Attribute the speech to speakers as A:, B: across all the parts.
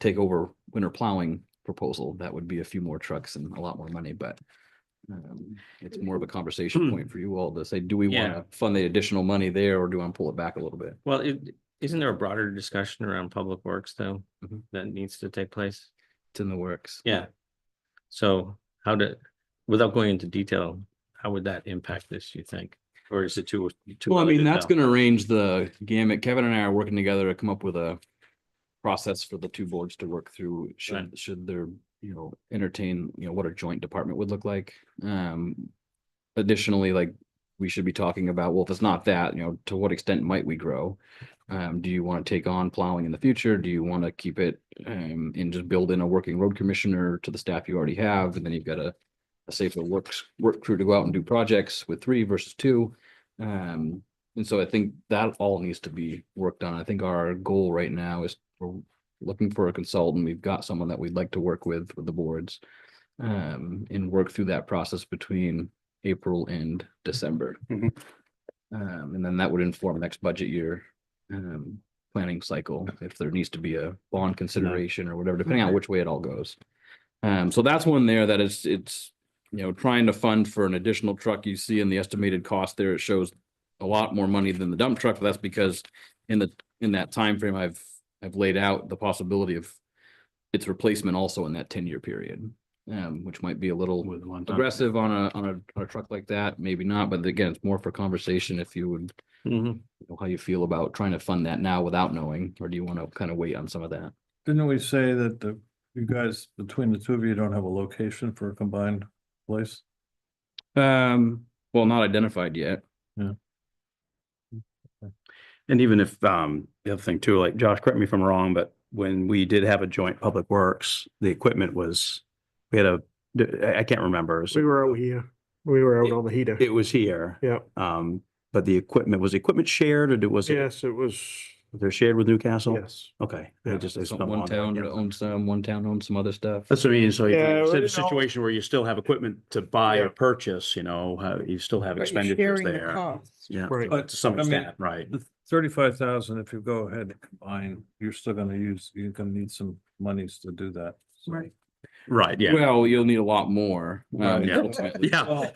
A: take over winter plowing proposal, that would be a few more trucks and a lot more money, but um, it's more of a conversation point for you all to say, do we want
B: Yeah.
A: to fund the additional money there or do I pull it back a little bit?
B: Well, it, isn't there a broader discussion around public works though,
A: Mhm.
B: that needs to take place?
A: It's in the works.
B: Yeah. So how did, without going into detail, how would that impact this, you think? Or is it too? too
A: Well, I
B: early
A: mean,
B: to
A: that's
B: tell?
A: gonna arrange the gamut. Kevin and I are working together to come up with a process for the two boards to work through. Should,
B: Right.
A: should there, you know, entertain, you know, what a joint department would look like. Um, additionally, like, we should be talking about, well, if it's not that, you know, to what extent might we grow? Um, do you want to take on plowing in the future? Do you want to keep it, um, and just build in a working road commissioner to the staff you already have? And then you've got a a safer works, work crew to go out and do projects with three versus two. Um, and so I think that all needs to be worked on. I think our goal right now is we're looking for a consultant. We've got someone that we'd like to work with with the boards. Um, and work through that process between April and December. Um,
C: Mhm.
A: and then that would inform next budget year, um, planning cycle, if there needs to be a bond consideration or whatever, depending on which way it all goes. Um, so that's one there that is, it's, you know, trying to fund for an additional truck. You see in the estimated cost there, it shows a lot more money than the dump truck, but that's because in the, in that time frame, I've, I've laid out the possibility of its replacement also in that ten-year period, um, which might be a little
C: With one. time.
A: aggressive on a, on a, on a truck like that, maybe not, but again, it's more for conversation if you would,
B: Mhm.
A: you know, how you feel about trying to fund that now without knowing, or do you want to kind of wait on some of that?
D: Didn't we say that the, you guys, between the two of you, don't have a location for a combined place?
A: Um, well, not identified yet.
C: And even if, um, the other thing too, like Josh, correct me if I'm wrong, but when we did have a joint public works, the equipment was, we had a, I, I can't remember. It was-
E: We were out here. We were out on the heater.
C: It was here.
E: Yeah.
C: Um, but the equipment, was the equipment shared or did- was it,
E: Yes, it was,
C: they're shared with Newcastle?
E: yes.
C: Okay. I
E: Yeah,
C: just- I just
A: Some-
C: don't
A: One
C: want that.
A: town
C: Yeah.
A: owns some, one town owns some other stuff.
C: That's what I mean. So you
E: Yeah,
C: instead of
E: you
C: a
E: know-
C: situation where you still have equipment to buy
E: Yeah.
C: or purchase, you know, how- you still have
F: But you're
C: expenditures
F: sharing the
C: there.
F: costs.
C: Yeah,
D: Right.
C: to some
D: I mean-
C: extent, right.
D: The thirty-five thousand, if you go ahead and combine, you're still gonna use, you're gonna need some monies to do that. so.
F: Right.
C: Right, yeah.
A: Well, you'll need a lot more. um,
D: Right.
C: Yeah.
A: ultimately.
C: Yeah.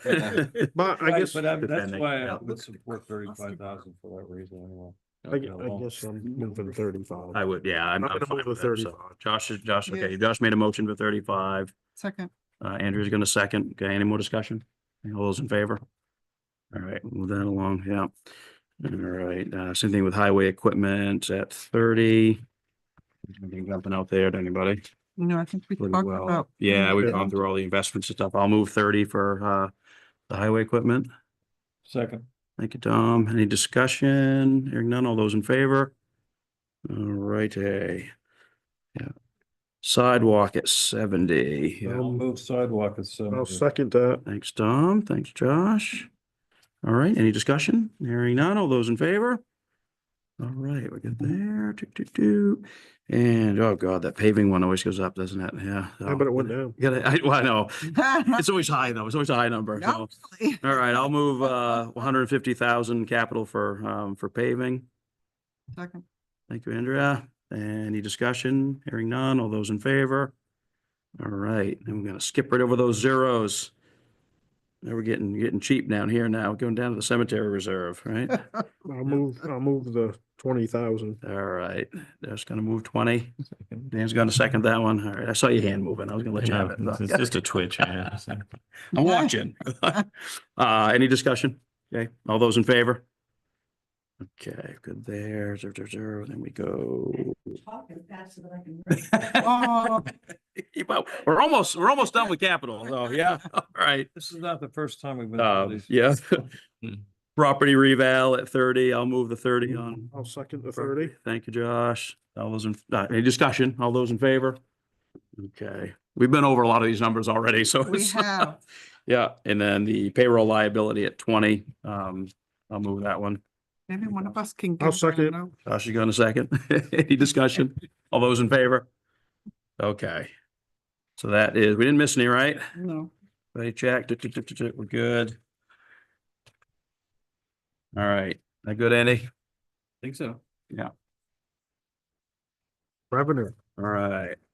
E: But I
D: Right,
E: guess,
D: But
E: I,
D: I'm- that's
C: depending,
D: why
C: yeah.
D: I would support thirty-five thousand for that reason anyway.
E: gu- I guess I'm moving thirty-five.
C: I would, yeah, I'm,
E: I'm
C: I'm
E: gonna
C: fine
E: move
C: with
E: to
C: that, so.
E: 35.
C: Josh is, Josh,
F: Yeah.
C: okay, Josh made a motion for thirty-five,
F: Second,
C: uh, Andrew's gonna second, okay, any more discussion? All those in favor? All right, move that along, yeah. All right, uh, same thing with highway equipment at thirty. Anything jumping out there to anybody?
F: no, I think we
C: Pretty
F: talked
C: well.
F: about.
C: Yeah, we've
D: Yeah.
C: gone through all the investments and stuff, I'll move thirty for, uh, the highway equipment.
D: Second,
C: Thank you, Tom. Any discussion? Hearing none. All those in favor? All righty. Yeah. Sidewalk at seventy. Yeah.
D: I'll move sidewalk at
E: I'll
D: seventy.
E: second that.
C: Thanks, Tom. Thanks, Josh. All right, any discussion? Hearing none. All those in favor? All right, we're good there. Do, do, do. And oh god, that paving one always goes up, doesn't it? Yeah.
E: How about it went down?
C: Oh, Yeah, I, well, I know. It's always high though. It's always a high number. so.
F: Not really.
C: All right, I'll move uh one hundred and fifty thousand capital for um for paving.
F: Second,
C: Thank you, Andrea. Any discussion? Hearing none. All those in favor? All right, and we're gonna skip right over those zeros. Now we're getting getting cheap down here now, going down to the cemetery reserve, right?
E: I'll move, I'll move the twenty thousand.
C: All right, that's gonna move twenty. Dan's gonna second that one. All right, I saw your hand moving. I was gonna let you have
B: Yeah, It's
C: it.
B: it's just a twitch. yeah, so.
C: I'm watching. Uh, any discussion? Okay, all those in favor? Okay, good there, zero, zero, zero, then we go.
F: Oh.
C: Keep up. We're almost, we're almost done with capital, so yeah, all right.
D: This is not the first time we've been. through
C: Um,
D: these.
C: yeah. Property reval at thirty, I'll move the thirty on.
E: I'll second the thirty.
C: Thank you, Josh. All those in, uh, any discussion? All those in favor? Okay, we've been over a lot of these numbers already, so.
F: We
C: it's-
F: have,
C: Yeah, and then the payroll liability at twenty, um, I'll move that one.
F: maybe one of us can.
E: I'll
F: give that
E: second.
F: out.
C: Josh is going to second. Any discussion? All those in favor? Okay. So that is, we didn't miss any, right?
F: No,
C: They checked, tick, tick, tick, tick, tick, we're good. All right, that good, Andy?
A: Think so.
E: Revenue.
D: All right,